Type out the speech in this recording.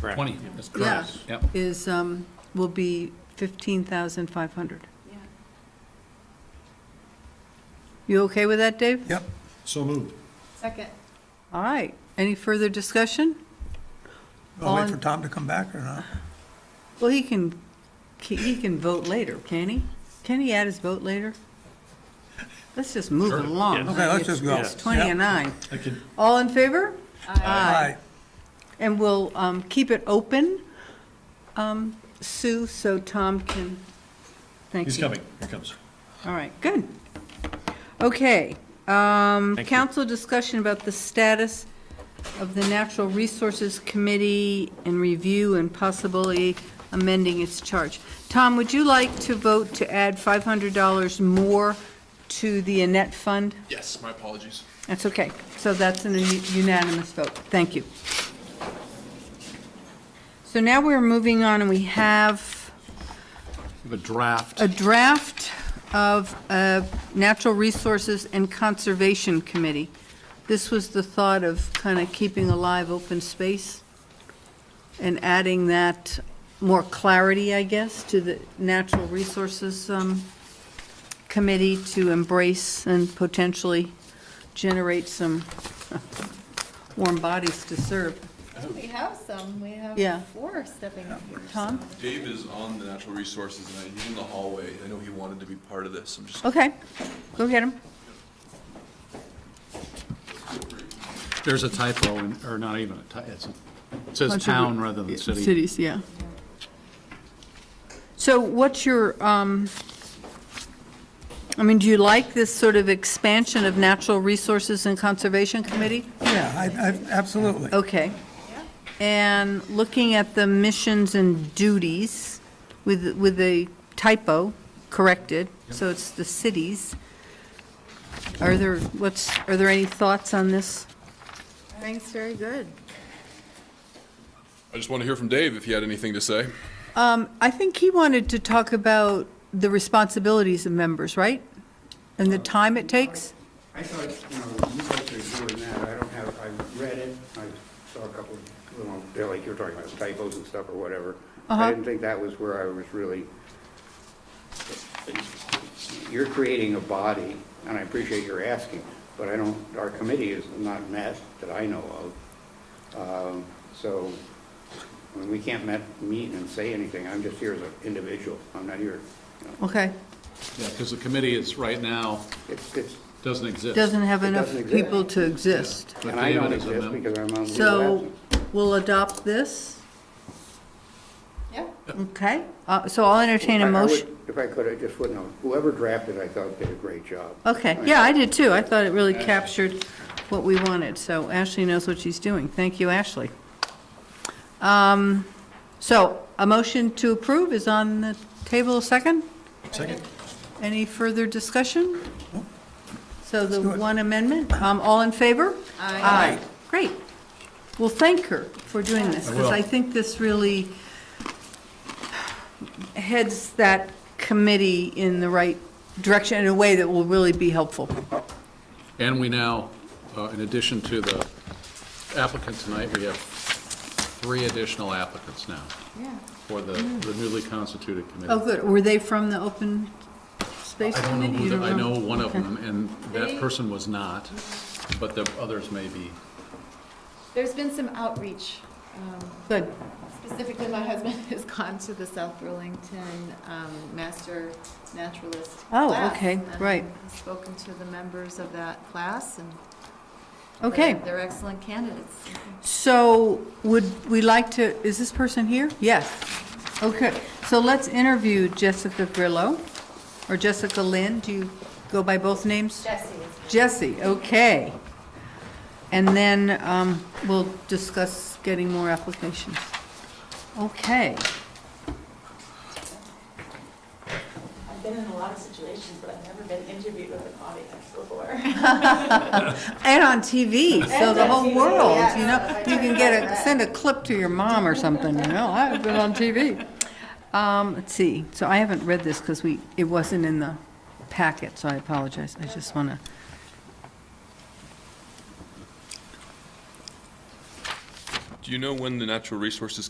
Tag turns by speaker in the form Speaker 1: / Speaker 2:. Speaker 1: 20, that's
Speaker 2: Yeah,
Speaker 1: correct. Yep.
Speaker 2: is, um, will be 15,500. You okay with that, Dave?
Speaker 3: Yep, so moved.
Speaker 2: Second. All right. Any further discussion?
Speaker 4: I'll
Speaker 2: On-
Speaker 4: wait for Tom to come back or not?
Speaker 2: Well, he can, he can vote later, can he? Can he add his vote later? Let's just move it along.
Speaker 4: Okay, let's just go.
Speaker 2: It's 20 and 9.
Speaker 3: I could,
Speaker 2: All in favor?
Speaker 4: Aye.
Speaker 2: And we'll um, keep it open, um, Sue, so Tom can, thank you.
Speaker 3: he's coming, here comes.
Speaker 2: All right, good. Okay, um, council discussion about the status of the Natural Resources Committee and review and possibly amending its charge. Tom, would you like to vote to add $500 more to the Annette Fund?
Speaker 5: Yes, my apologies.
Speaker 2: That's okay. So that's an unanimous vote. Thank you. So now we're moving on, and we have
Speaker 1: We have a draft.
Speaker 2: a draft of a Natural Resources and Conservation Committee. This was the thought of kind of keeping alive open space and adding that more clarity, I guess, to the Natural Resources um, Committee to embrace and potentially generate some warm bodies to serve.
Speaker 6: We have some, we have
Speaker 2: Yeah.
Speaker 6: four stepping up here.
Speaker 2: Tom?
Speaker 5: Dave is on the natural resources and I- he's in the hallway. I know he wanted to be part of this. I'm just
Speaker 2: Okay, go get him.
Speaker 1: There's a typo, in- or not even a typo, it says
Speaker 2: Bunch of-
Speaker 1: town rather than city.
Speaker 2: Cities, yeah. So what's your, um, I mean, do you like this sort of expansion of Natural Resources and Conservation Committee?
Speaker 4: Yeah, I, I, absolutely.
Speaker 2: Okay. And looking at the missions and duties with, with a typo corrected, so it's the cities. Are there, what's, are there any thoughts on this?
Speaker 6: Thanks, very good.
Speaker 5: I just want to hear from Dave if he had anything to say.
Speaker 2: Um, I think he wanted to talk about the responsibilities of members, right? And the time it takes?
Speaker 7: I thought, you know, you guys are doing that, I don't have, I read it, I saw a couple of, little they're like you're talking about typos and stuff or whatever.
Speaker 2: Uh-huh.
Speaker 7: I didn't think that was where I was really, you're creating a body, and I appreciate your asking, but I don't, our committee is not met that I know of. Um, So, I mean, we can't met, meet and say anything, I'm just here as an individual, I'm not here, you know.
Speaker 2: Okay.
Speaker 1: Yeah, because the committee is, right now,
Speaker 7: it's, it's,
Speaker 1: doesn't exist.
Speaker 2: Doesn't have
Speaker 7: It
Speaker 2: enough
Speaker 7: doesn't exist.
Speaker 2: people to exist.
Speaker 1: But
Speaker 7: and I don't
Speaker 1: David is a
Speaker 7: exist
Speaker 1: mem-
Speaker 7: because I'm on leave of
Speaker 2: So
Speaker 7: absence.
Speaker 2: we'll adopt this,
Speaker 6: Yeah.
Speaker 2: okay? Uh, So I'll entertain
Speaker 7: I-
Speaker 2: a
Speaker 7: I would-
Speaker 2: motion.
Speaker 7: If I could, I just would note, whoever drafted, I thought did a great job.
Speaker 2: Okay, yeah, I did too. I thought it really captured what we wanted, so Ashley knows what she's doing. Thank you, Ashley. Um, So a motion to approve is on the table, second?
Speaker 3: Second,
Speaker 2: Any further discussion? So the
Speaker 4: do it.
Speaker 2: one amendment, um, all in favor? Aye. Great. Well, thank her for doing this,
Speaker 3: I
Speaker 2: because
Speaker 3: will.
Speaker 2: I think this really heads that committee in the right direction in a way that will really be helpful.
Speaker 1: And we now, uh, in addition to the applicant tonight, we have three additional applicants now
Speaker 6: Yeah.
Speaker 1: for the
Speaker 2: Mm.
Speaker 1: the newly constituted committee.
Speaker 2: Oh, good. Were they from the open space
Speaker 1: I don't know,
Speaker 2: committee?
Speaker 1: who
Speaker 2: You
Speaker 1: the-
Speaker 2: don't
Speaker 1: I know one of
Speaker 2: Okay.
Speaker 1: them, and that
Speaker 6: They-
Speaker 1: person was not, but the others may be.
Speaker 6: There's been some outreach. um,
Speaker 2: Good.
Speaker 6: Specifically, my husband has gone to the South Burlington um, Master Naturalist
Speaker 2: Oh,
Speaker 6: class,
Speaker 2: okay,
Speaker 6: and
Speaker 2: right.
Speaker 6: he's Spoken to the members of that class and.
Speaker 2: Okay.
Speaker 6: they're- They're excellent candidates.
Speaker 2: So would we like to, is this person here? Yes. Okay, so let's interview Jessica Grillo, or Jessica Lynn, do you go by both names?
Speaker 6: Jesse
Speaker 2: Jesse, okay. And then um, we'll discuss getting more applications. Okay,
Speaker 8: I've been in a lot of situations, but I've never been interviewed with an audience before.
Speaker 2: and on TV, so the whole
Speaker 8: And on TV,
Speaker 2: world,
Speaker 8: yeah.
Speaker 2: you know, you can get a, send a clip to your mom or something, you know, I've been on TV. Um, let's see, so I haven't read this because we, it wasn't in the packet, so I apologize, I just want to.
Speaker 5: Do you know when the natural resources